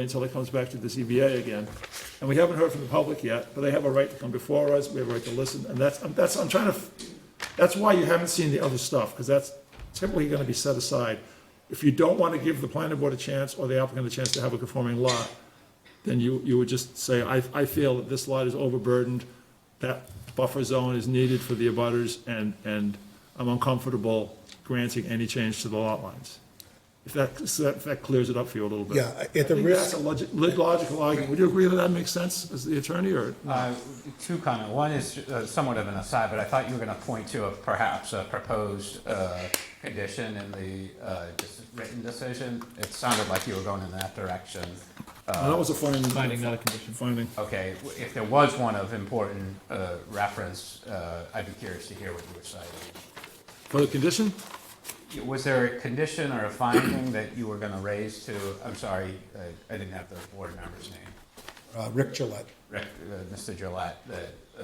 until it comes back to the ZBA again. And we haven't heard from the public yet, but they have a right to come before us, we have a right to listen, and that's, I'm- that's, I'm trying to, f- that's why you haven't seen the other stuff, because that's typically gonna be set aside. If you don't wanna give the planning board a chance or the applicant a chance to have a conforming lot, then you, you would just say, I, I feel that this lot is overburdened, that buffer zone is needed for the abutters, and, and I'm uncomfortable granting any change to the lot lines. If that, if that clears it up for you a little bit. Yeah, at I the think that's risk, a logi- lit- logical argument. Would you agree that that makes sense as the attorney or? Uh, Two comment. One is uh, somewhat of an aside, but I thought you were going to point to a perhaps a proposed uh, condition in the uh, dis- written decision. It sounded like you were going in that direction. No, That was a finding. Finding, not a condition. Finding. Okay, w- if there was one of important uh, reference, uh, I'd be curious to hear what you were citing. For the condition? Was there a condition or a finding that you were going to raise to, I'm sorry, uh, I didn't have the board member's name. uh, Rick Gillette. Rick, uh, Mr. Gillette, that, uh,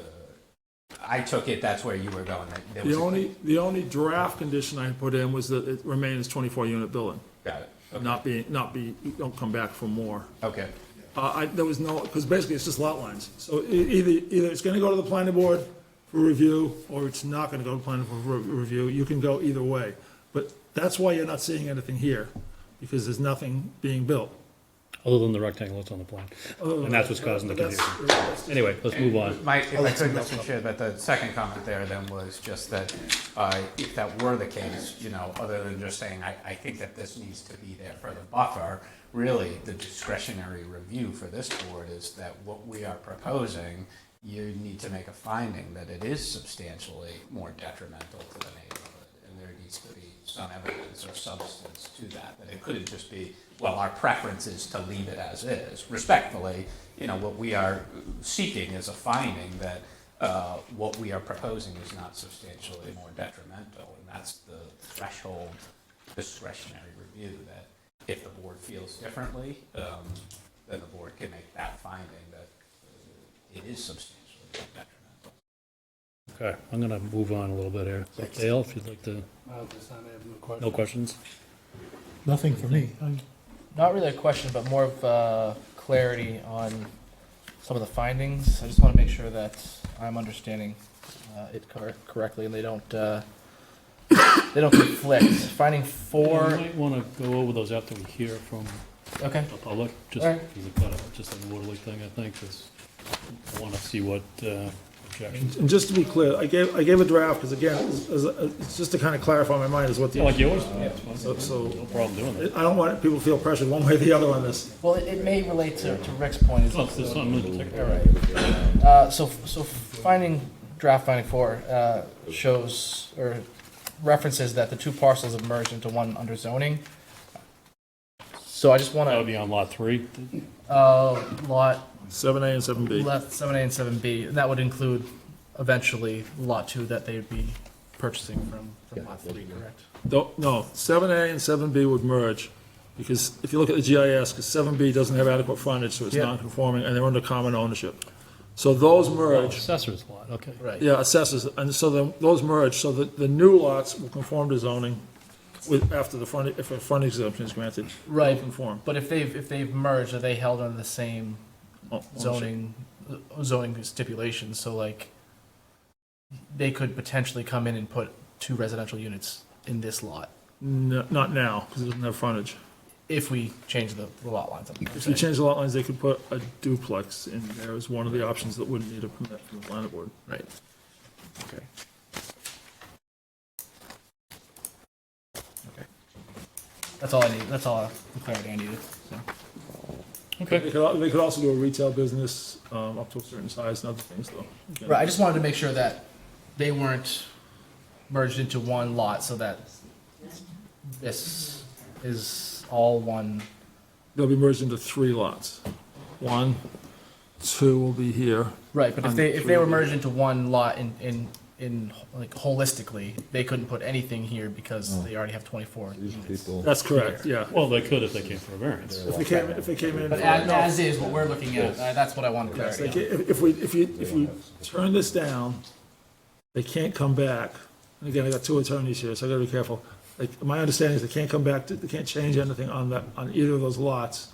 I took it that's where you were going. that there was The a- only, the only draft condition I put in was that it remains twenty-four unit building, Got it. Okay. not be, not be, don't come back for more. Okay. Uh, I, there was no, because basically it's just lot lines. So e- either, either it's gonna go to the planning board for review, or it's not gonna go to the planning board for re- review. You can go either way. But that's why you're not seeing anything here, because there's nothing being built. Other than the rectangle that's on the plan. And Oh, that's what's causing the That's- confusion. Anyway, let's move on. My, if I could, Mr. Chair, but the second comment there then was just that, uh, if that were the case, you know, other than just saying, I, I think that this needs to be there for the buffer, really, the discretionary review for this board is that what we are proposing, you need to make a finding that it is substantially more detrimental to the neighborhood. And there needs to be some evidence or substance to that, that it couldn't just be, well, our preference is to leave it as is. Respectfully, you know, what we are seeking is a finding that uh, what we are proposing is not substantially more detrimental, and that's the threshold discretionary review that if the board feels differently, um, then the board can make that finding that uh, it is substantially more detrimental. Okay, I'm gonna move on a little bit here. Dale, if you'd like to, no questions? Nothing for me. Not really a question, but more of uh, clarity on some of the findings. I just want to make sure that I'm understanding uh, it cor- correctly and they don't, uh, they don't conflict. Finding You four, might wanna go over those after we hear from okay, the public, just All right. because it's kind of, just like the Water Lake thing, I think, is, I wanna see what, uh, objections. And just to be clear, I gave, I gave a draft, because again, it's, it's just to kind of clarify my mind is what the, Like I yours? Yeah, it's fine. so- so- No problem doing that. don't want people to feel pressured one way or the other on this. well, it- it may relate to to Rick's point. is- Look, there's something in particular. All right. Uh, So, so finding, draft finding four uh, shows, or references that the two parcels have merged into one under zoning. So I just want That would to, be on lot three. oh, lot Seven A and seven B. Lot seven A and seven B, and that would include eventually lot two that they'd be purchasing from, from lot three, correct? Don't, no, seven A and seven B would merge, because if you look at the GIS, because seven B doesn't have adequate frontage, so it's Yeah. non-conforming, and they're under common ownership. So those merge. Assessor's lot, okay. Right. Yeah, assessors, and so then those merge, so that the new lots will conform to zoning with, after the front, if a front exemption is granted. they'll Right. Conform. But if they've, if they've merged, are they held under the same Oh, ownership. zoning, uh, zoning stipulations, so like, they could potentially come in and put two residential units in this lot, No, not now, because it doesn't have frontage. if we change the the lot lines. I'm If you saying. change the lot lines, they could put a duplex in there as one of the options that wouldn't need a permit from the planning board. Right. That's all I need, that's all the clarity I needed, so. They could, al- they could also do a retail business, um, up to a certain size and other things though. Again, Right, I just wanted to make sure that they weren't merged into one lot so that this is all one. They'll be merged into three lots. One, two will be here. Right, but if On they, if they three. were merged into one lot in, in, in, like holistically, they couldn't put anything here because they already have twenty-four units. That's correct, yeah. Well, they could if they came for a variance. If they came, if they came in. But as, as is what we're looking at, uh, that's what I want Yes, they clarity ca- on. if if we, if you, if we turn this down, they can't come back. And again, I got two attorneys here, so I gotta be careful. Like, my understanding is they can't come back, to- they can't change anything on that, on either of those lots